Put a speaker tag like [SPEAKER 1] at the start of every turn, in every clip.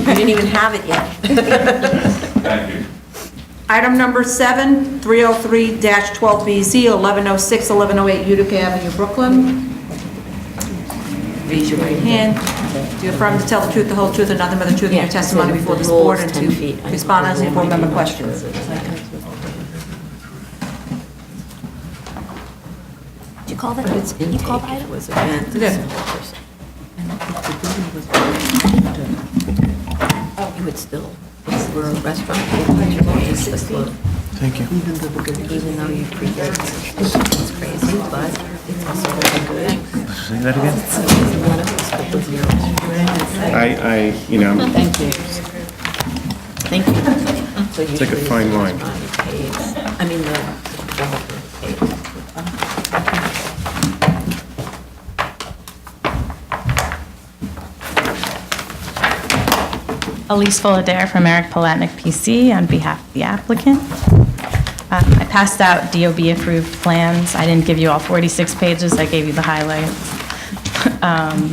[SPEAKER 1] You didn't even have it yet.
[SPEAKER 2] Thank you.
[SPEAKER 1] Item number seven, 303-12BZ, 1106, 1108 Utica Avenue, Brooklyn. Raise your right hand. Do you affirm to tell the truth, the whole truth, and nothing but the truth in your
[SPEAKER 3] Yeah, so
[SPEAKER 1] testimony before
[SPEAKER 3] the
[SPEAKER 1] this
[SPEAKER 3] rule's
[SPEAKER 1] board and
[SPEAKER 3] 10 feet.
[SPEAKER 1] to
[SPEAKER 3] I
[SPEAKER 1] respond
[SPEAKER 3] think
[SPEAKER 1] as
[SPEAKER 3] the
[SPEAKER 1] board
[SPEAKER 3] rule might
[SPEAKER 1] member
[SPEAKER 3] be
[SPEAKER 1] questions?
[SPEAKER 3] Did you call that, you called item? was a
[SPEAKER 1] I did.
[SPEAKER 3] Oh, You would still, if we're a restaurant, you would just disclose.
[SPEAKER 4] Thank you.
[SPEAKER 3] Even though we're good, even though you pre-did, it's crazy, but it's also really good.
[SPEAKER 4] Say that again?
[SPEAKER 3] One of us put the zero.
[SPEAKER 4] I, I, you know,
[SPEAKER 3] Thank you. Thank you. So
[SPEAKER 4] like a
[SPEAKER 3] usually
[SPEAKER 4] fine line.
[SPEAKER 3] the restaurant pays- I mean, the developer pays.
[SPEAKER 5] Elise Fullader from Eric Palatnik PC on behalf of the applicant. Um, I passed out DOB-approved plans. I didn't give you all 46 pages, I gave you the highlights. Um,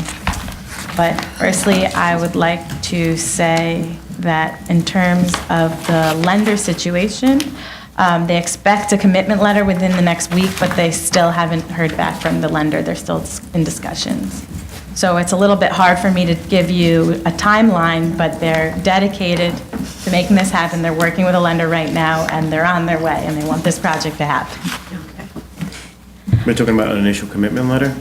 [SPEAKER 5] But firstly, I would like to say that in terms of the lender situation, um, they expect a commitment letter within the next week, but they still haven't heard back from the lender. They're still in discussions. So it's a little bit hard for me to give you a timeline, but they're dedicated to making this happen. They're working with a lender right now, and they're on their way, and they want this project to happen.
[SPEAKER 4] we're talking about an initial commitment letter?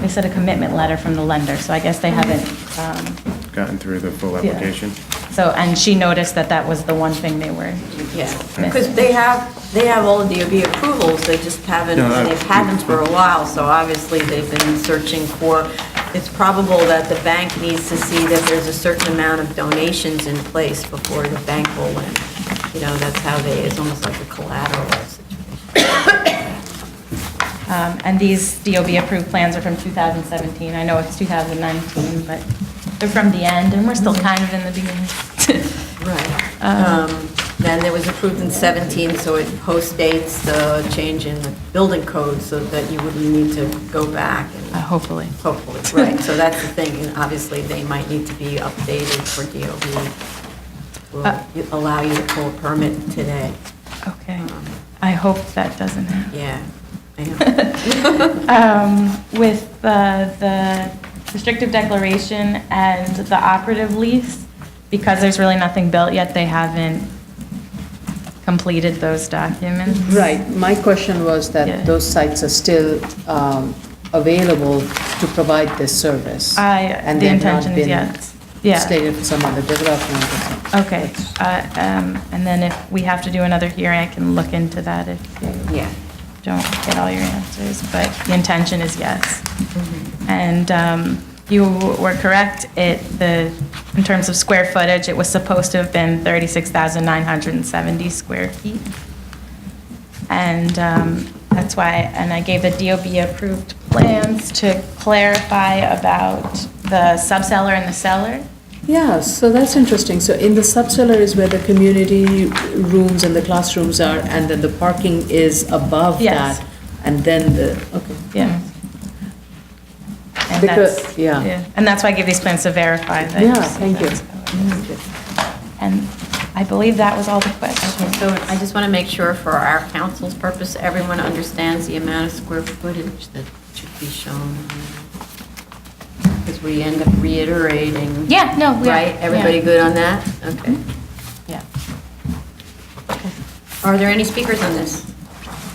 [SPEAKER 5] They said a commitment letter from the lender, so I guess they haven't um,
[SPEAKER 4] Gotten through the full
[SPEAKER 5] Yeah.
[SPEAKER 4] application?
[SPEAKER 5] So, and she noticed that that was the one thing they were,
[SPEAKER 3] Yeah, because they have, they have all the DOB approvals, they just haven't,
[SPEAKER 4] No, I-
[SPEAKER 3] and they've had them for a while, so obviously they've been searching for, it's probable that the bank needs to see that there's a certain amount of donations in place before the bank will lend. You know, that's how they, it's almost like a collateral situation.
[SPEAKER 5] um, and these DOB-approved plans are from 2017. I know it's 2019, but they're from the end, and we're still kind of in the beginning.
[SPEAKER 3] Right. Um, Then it was approved in 17, so it postdates the change in the building code, so that you wouldn't need to go back and
[SPEAKER 5] Uh, Hopefully.
[SPEAKER 3] Hopefully, right, so that's the thing, and obviously, they might need to be updated for DOB.
[SPEAKER 5] Uh.
[SPEAKER 3] Will allow you to pull a permit today,
[SPEAKER 5] Okay.
[SPEAKER 3] Hmm.
[SPEAKER 5] I hope that doesn't happen.
[SPEAKER 3] yeah. I know.
[SPEAKER 5] Um, With uh, the restrictive declaration and the operative lease, because there's really nothing built yet, they haven't completed those documents.
[SPEAKER 6] Right, my question was
[SPEAKER 5] Yeah.
[SPEAKER 6] that those sites are still um, available to provide this service.
[SPEAKER 5] I, uh,
[SPEAKER 6] and
[SPEAKER 5] the
[SPEAKER 6] they have not
[SPEAKER 5] intention is
[SPEAKER 6] been
[SPEAKER 5] yes. Yeah,
[SPEAKER 6] Slated for some other development or something.
[SPEAKER 5] okay. Uh, um, And then if we have to do another hearing, I can look into that if you
[SPEAKER 3] Yeah.
[SPEAKER 5] don't get all your answers, but the intention is yes. And um, you were correct, it, the, in terms of square footage, it was supposed to have been 36,970 square feet. And um, that's why, and I gave the DOB-approved plans to clarify about the subcellar and the cellar.
[SPEAKER 6] Yeah, so that's interesting. So in the subcellar is where the community rooms and the classrooms are, and then the parking is above
[SPEAKER 5] Yes.
[SPEAKER 6] that. And then the, okay.
[SPEAKER 5] Yeah.
[SPEAKER 3] Hmm.
[SPEAKER 5] And
[SPEAKER 6] Because-
[SPEAKER 5] that's,
[SPEAKER 6] yeah.
[SPEAKER 5] yeah, and that's why I give these plans to verify that.
[SPEAKER 6] Yeah, thank you.
[SPEAKER 5] And I believe that was all the questions.
[SPEAKER 3] So I just want to make sure for our council's purpose, everyone understands the amount of square footage that should be shown. Because we end up reiterating.
[SPEAKER 5] Yeah, no, we are-
[SPEAKER 3] Right, everybody
[SPEAKER 5] yeah.
[SPEAKER 3] good on that? Okay.
[SPEAKER 5] Yeah.
[SPEAKER 3] Are there any speakers on this?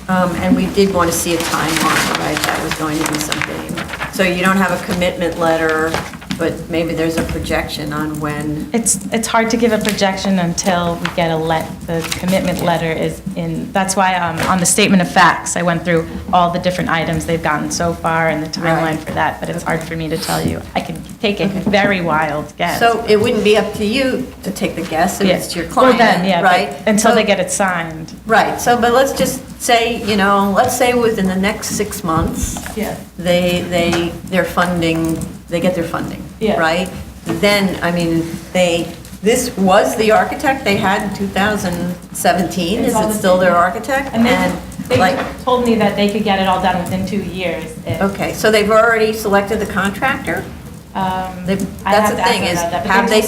[SPEAKER 3] Um, And we did want to see a timeline, right? That was going to be something. So you don't have a commitment letter, but maybe there's a projection on when.
[SPEAKER 5] It's, it's hard to give a projection until we get a let, the commitment letter is in, that's why um, on the statement of facts, I went through all the different items they've gotten so far and the timeline
[SPEAKER 3] Right.
[SPEAKER 5] for that, but it's hard for me to tell you. I can take a very wild guess.
[SPEAKER 3] So it wouldn't be up to you to take the guess, if
[SPEAKER 5] Yeah.
[SPEAKER 3] it's your
[SPEAKER 5] Well, then, yeah,
[SPEAKER 3] client,
[SPEAKER 5] but
[SPEAKER 3] right?
[SPEAKER 5] Until they
[SPEAKER 3] So-
[SPEAKER 5] get it signed.
[SPEAKER 3] Right, so, but let's just say, you know, let's say within the next six months,
[SPEAKER 5] Yeah.
[SPEAKER 3] they, they, their funding, they get their funding,
[SPEAKER 5] Yeah.
[SPEAKER 3] right? Then, I mean, they, this was the architect they had in 2017, is
[SPEAKER 5] It's all
[SPEAKER 3] it
[SPEAKER 5] the
[SPEAKER 3] still their
[SPEAKER 5] same.
[SPEAKER 3] architect?
[SPEAKER 5] And
[SPEAKER 3] And,
[SPEAKER 5] they,
[SPEAKER 3] like,
[SPEAKER 5] they told me that they could get it all done within two years. if-
[SPEAKER 3] okay, so they've already selected the contractor?
[SPEAKER 5] Uh, Um,
[SPEAKER 3] They-
[SPEAKER 5] I
[SPEAKER 3] That's
[SPEAKER 5] have
[SPEAKER 3] the
[SPEAKER 5] to ask
[SPEAKER 3] thing
[SPEAKER 5] them
[SPEAKER 3] is,
[SPEAKER 5] about that, but
[SPEAKER 3] have
[SPEAKER 5] there's
[SPEAKER 3] they